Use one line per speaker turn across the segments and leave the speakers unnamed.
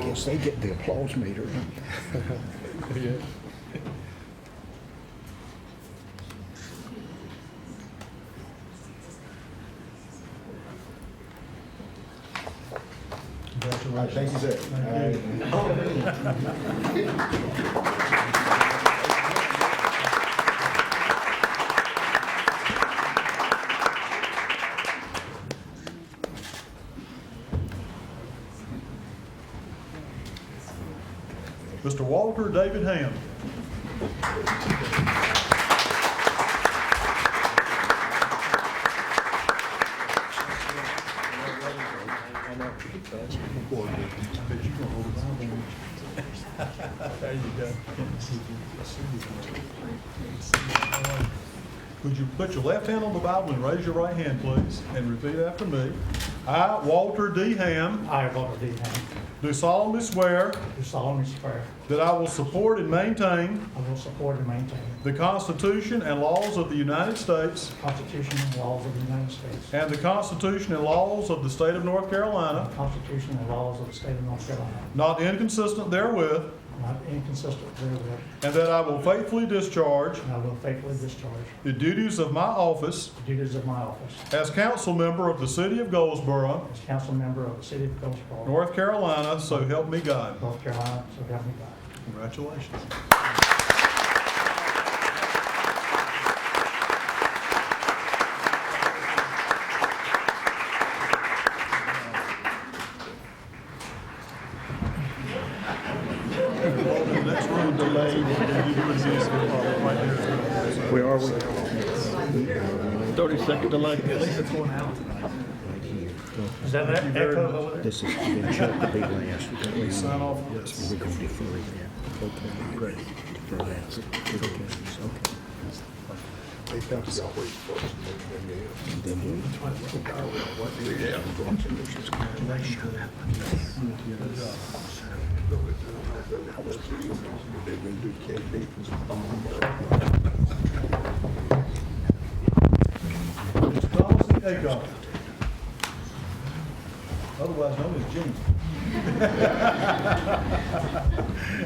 course, they get the applause meter.
Thank you, sir.
Mr. Walter David Ham. There you go. Would you put your left hand on the Bible and raise your right hand, please, and repeat after me? I, Walter D. Ham,
I, Robert D. Ham,
do solemnly swear
do solemnly swear
that I will support and maintain
I will support and maintain
The Constitution and laws of the United States
the Constitution and laws of the United States
and the Constitution and laws of the State of North
and
Carolina,
the Constitution and laws of the state of North Carolina,
not inconsistent therewith,
not inconsistent therewith,
and that I will faithfully discharge
and I will faithfully discharge
the duties of my office
the duties of my office
as council member of the City of Goldsboro,
as council member of the city of Goldsboro,
North Carolina, so help me God.
North Carolina, so help me God.
Congratulations. Next room delayed.
Where are we?
30 second delay.
Is that an echo over there?
This has been checked to be last. We're gonna-
Sign off on this.
We're going to defer that. Okay, great. Defer that. Okay. And then we'll-
Donaldson Acock. Otherwise known as Jimmy.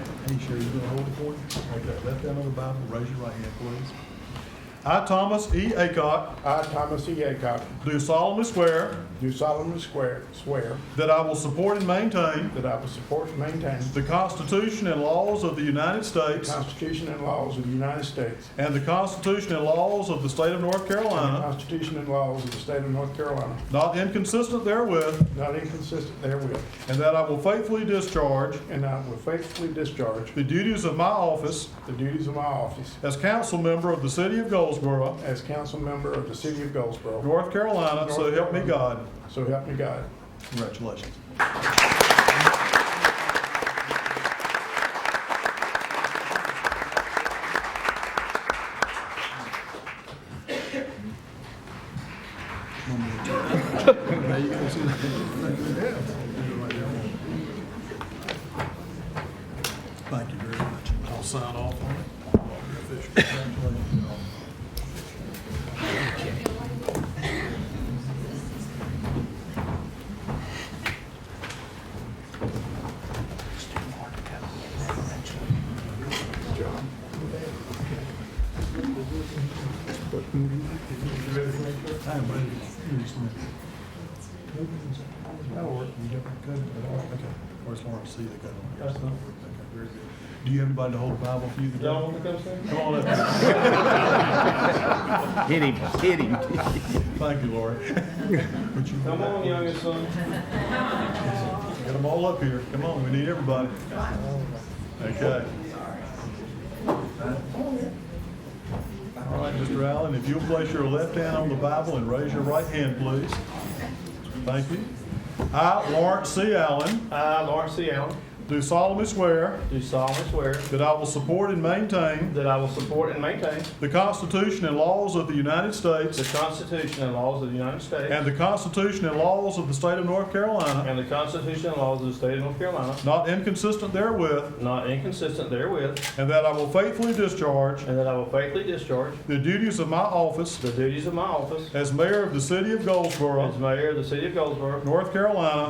Are you sure you're gonna hold it for you? Take that left hand on the Bible, raise your right hand, please. I, Thomas E. Acock,
I, Thomas E. Hancock,
do solemnly swear
do solemnly swear, swear
that I will support and maintain
that I will support and maintain
the Constitution and laws of the United
the
States
Constitution and laws of the United States
and the Constitution and laws of the State of North
and the
Carolina,
Constitution and laws of the state of North Carolina,
not inconsistent therewith,
not inconsistent therewith,
and that I will faithfully discharge
and I will faithfully discharge
the duties of my office
the duties of my office
As council member of the city of Goldsboro,
as council member of the city of Goldsboro.
North Carolina, so help me God.
So help me God.
Congratulations. Thank you very much. I'll sign off on it. Official. Congratulations, y'all. I am ready. That'll work. You got- good? Okay. Where's Lawrence? See, they got one. Yes, that'll work. Okay, very good. Do you have anybody to hold the Bible for you today? Y'all want to come Come on up.
Hit him, hit him.
Thank you, Lori. Come on, youngest son. Get them all up here. Come on, we need everybody. Okay. All right, Mr. Allen, if you'll place your left hand on the Bible and raise your right hand, please. Thank you. I, Lawrence C. Allen,
I, Lawrence C. Allen,
do solemnly swear
do solemnly swear
that I will support and maintain
that I will support and maintain
the Constitution and laws of the United
the
States
Constitution and laws of the United States
and the Constitution and laws of the State of North Carolina,
and the Constitution and laws of the State of North Carolina,
not inconsistent therewith,
not inconsistent therewith,
and that I will faithfully discharge
and that I will faithfully discharge
the duties of my office
the duties of my office
as mayor of the city of
as
Goldsboro,
mayor of the City of Goldsboro,
North Carolina,